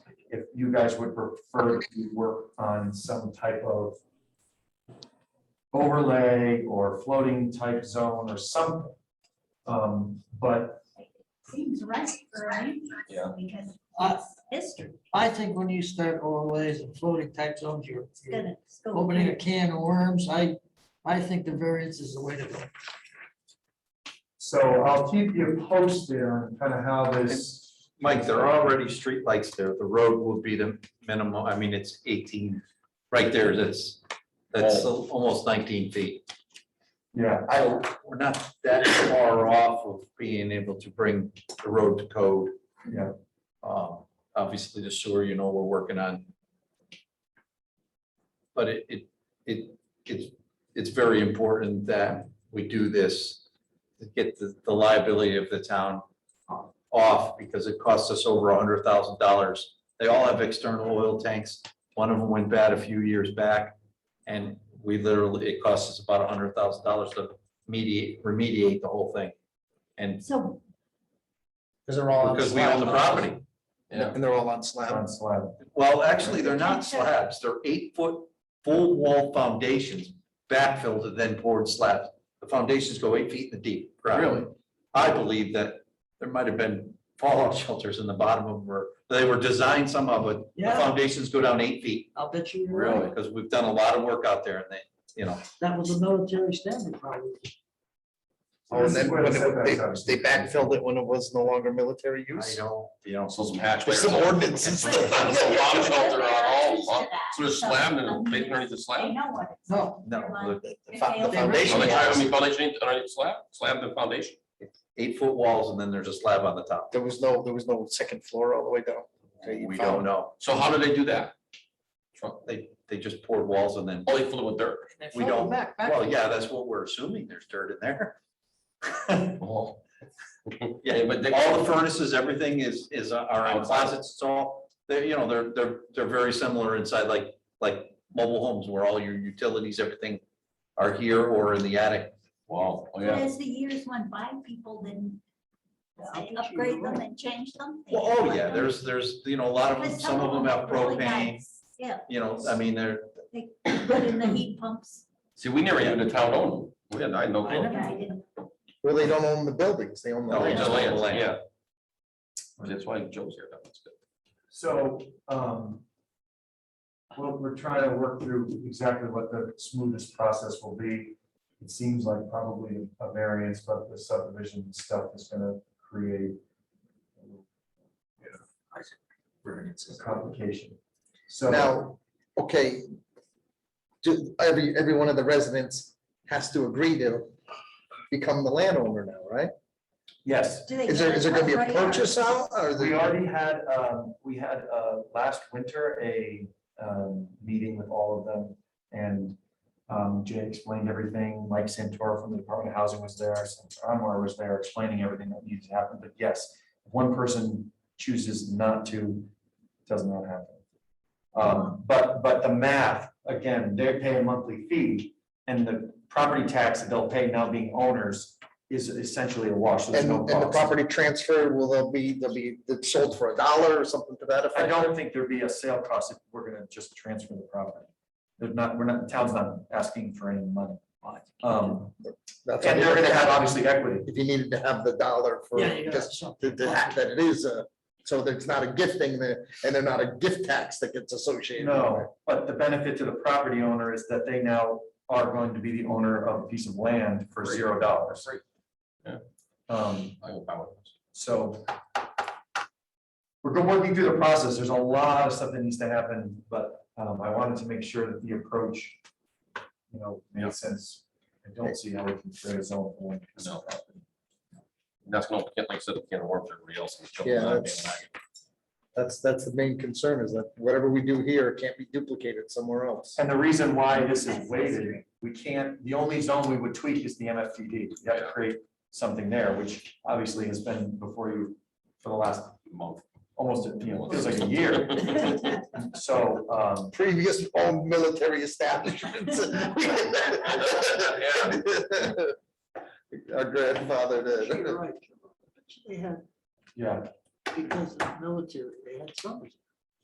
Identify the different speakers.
Speaker 1: you guys would prefer to work on some type of overlay or floating type zone or something. Um, but
Speaker 2: Seems right, right?
Speaker 1: Yeah.
Speaker 2: Because
Speaker 3: I,
Speaker 2: history
Speaker 3: I think when you start overlays and floating type zones, you're
Speaker 2: is
Speaker 3: you're
Speaker 2: gonna. it's gonna-
Speaker 3: opening a can of worms. I, I think the variance is the way to go.
Speaker 1: so I'll keep you posted on kind of how this.
Speaker 4: Mike, there are already streetlights there. The road will be the minimum, I mean, it's eighteen, right there, that's, that's al- almost nineteen feet.
Speaker 1: Yeah,
Speaker 4: Oh. I, we're not that far off of being able to bring the road to code.
Speaker 1: Yeah.
Speaker 4: Um, obviously the sewer, you know, we're working on. But it, it, it, it's, it's very important that we do this to get the, the liability of the town um, off because it costs us over a hundred thousand dollars. They all have external oil tanks. One of them went bad a few years back. And we literally, it costs us about a hundred thousand dollars to mediate, remediate the whole thing. And
Speaker 2: So,
Speaker 5: Because they're all. on
Speaker 4: because we own the
Speaker 5: slab.
Speaker 4: property. Yeah.
Speaker 5: And they're all on slab.
Speaker 1: on slab.
Speaker 4: Well, actually, they're not slabs. They're eight foot full wall foundations backfilled and then poured slabs. The foundations go eight feet in the deep. ground.
Speaker 5: Really?
Speaker 4: I believe that there might have been fallout shelters in the bottom of them or they were designed somehow, but the
Speaker 3: Yeah.
Speaker 4: foundations go down eight feet.
Speaker 3: I'll bet you you're right.
Speaker 4: Because we've done a lot of work out there and they, you know,
Speaker 3: That was a military standard probably.
Speaker 1: So
Speaker 5: Oh, And
Speaker 1: this is
Speaker 5: then
Speaker 1: where
Speaker 5: when
Speaker 1: the
Speaker 5: it-
Speaker 1: setbacks
Speaker 5: they,
Speaker 1: are.
Speaker 5: they backfilled it when it was no longer military
Speaker 4: I
Speaker 5: use.
Speaker 4: don't, you know.
Speaker 6: So some hatchways.
Speaker 5: There's some ordinances.
Speaker 6: There's a lot of shelter on all of them. So they're slabbed and they underneath the
Speaker 2: they
Speaker 6: slab.
Speaker 2: know what it's.
Speaker 3: No,
Speaker 4: No, look,
Speaker 5: The the
Speaker 2: If
Speaker 5: fo- the
Speaker 2: they-
Speaker 6: Are
Speaker 5: foundation.
Speaker 6: they trying to
Speaker 5: was-
Speaker 6: make foundation underneath the slab? Slab the foundation?
Speaker 4: eight foot walls and then there's a slab on the top.
Speaker 5: There was no, there was no second floor all the way down. Okay, you
Speaker 4: We don't
Speaker 5: found-
Speaker 4: know.
Speaker 6: So how do they do that?
Speaker 4: They, they just poured walls and then,
Speaker 6: Oh, they filled it with dirt.
Speaker 3: they
Speaker 4: We
Speaker 3: filled
Speaker 4: don't-
Speaker 3: them back- back.
Speaker 4: well, yeah, that's what we're assuming. There's dirt in there.
Speaker 6: Oh.
Speaker 4: Yeah,
Speaker 6: but they-
Speaker 4: All the furnaces, everything is, is, uh, are on closets, it's all, they're, you know, they're, they're, they're very similar inside, like, like mobile homes where all your utilities, everything are here or in the attic.
Speaker 6: Wow, oh
Speaker 2: But
Speaker 6: yeah.
Speaker 2: as the years went by, people didn't
Speaker 3: Yeah, I
Speaker 2: they
Speaker 3: bet you
Speaker 2: upgrade
Speaker 3: you're
Speaker 2: them
Speaker 3: right.
Speaker 2: and change them. They
Speaker 4: Well,
Speaker 2: did
Speaker 4: oh
Speaker 2: like
Speaker 4: yeah,
Speaker 2: them.
Speaker 4: there's, there's, you know, a lot of
Speaker 2: But
Speaker 4: them, some of them have
Speaker 2: are really
Speaker 4: propane,
Speaker 2: nice. Yeah,
Speaker 4: you know, I mean, they're,
Speaker 2: they put in the heat pumps.
Speaker 6: See, we never knew the town owned. them. We had, I had no
Speaker 3: I
Speaker 6: clue.
Speaker 3: know.
Speaker 2: Yeah, I didn't-
Speaker 5: Well, they don't own the buildings, they own the
Speaker 4: No, they
Speaker 5: land.
Speaker 4: just
Speaker 6: The
Speaker 4: own the
Speaker 6: land,
Speaker 4: land.
Speaker 6: yeah. That's why Joe's here. That was good.
Speaker 1: So, um. Well, we're trying to work through exactly what the smoothest process will be. It seems like probably a variance, but the subdivision stuff is gonna create. Variances. Complication. So,
Speaker 5: Now, okay. Do, every, every one of the residents has to agree to become the landowner now, right?
Speaker 1: yes,
Speaker 2: do they
Speaker 5: Is there,
Speaker 2: get
Speaker 5: is there gonna be a
Speaker 2: what they are?
Speaker 5: purchase out or?
Speaker 1: we
Speaker 5: the-
Speaker 1: already had, um, we had, uh, last winter, a, um, meeting with all of them. And, um, Jay explained everything. Mike Santora from the Department of Housing was there, Anwar was there explaining everything that needed to happen. But yes, if one person chooses not to, it does not happen. Um, but, but the math, again, they pay a monthly fee and the property tax that they'll pay now being owners is essentially a wash. so there's
Speaker 5: And,
Speaker 1: no
Speaker 5: and the
Speaker 1: cost.
Speaker 5: property transfer, will they'll be, they'll be it's sold for a dollar or something to that
Speaker 1: I
Speaker 5: effect?
Speaker 1: don't think there'd be a sale cost if we're gonna just transfer the property. There's not, we're not, the town's not asking for any money. Um,
Speaker 5: That's
Speaker 1: and they're
Speaker 5: what I-
Speaker 1: gonna have obviously equity.
Speaker 5: If you needed to have the dollar for,
Speaker 3: Yeah, you got
Speaker 5: just
Speaker 3: something.
Speaker 5: to, to have that it is a, so that it's not a gifting there, and they're not a gift tax that gets associated. with it.
Speaker 1: No, but the benefit to the property owner is that they now are going to be the owner of a piece of land for zero dollars.
Speaker 6: Great. Yeah.
Speaker 1: Um,
Speaker 6: I will power this.
Speaker 1: so. We're go- working through the process. There's a lot of stuff that needs to happen, but, um, I wanted to make sure that the approach, you know, made sense. I don't see how we can create a zone for one piece of
Speaker 6: No.
Speaker 1: property.
Speaker 6: That's gonna, like I said, can't work for everybody else.
Speaker 5: Yeah, that's- That's, that's the main concern is that whatever we do here can't be duplicated somewhere else.
Speaker 1: And the reason why this is weighted, we can't, the only zone we would tweak is the MFTD. You have to create something there, which obviously has been before you for the last
Speaker 6: Month.
Speaker 1: almost, you know, feels like a year. So, um,
Speaker 5: Previous all military establishments. Our grandfather did.
Speaker 3: You're right. They had,
Speaker 1: yeah,
Speaker 3: because of the military, they had summers.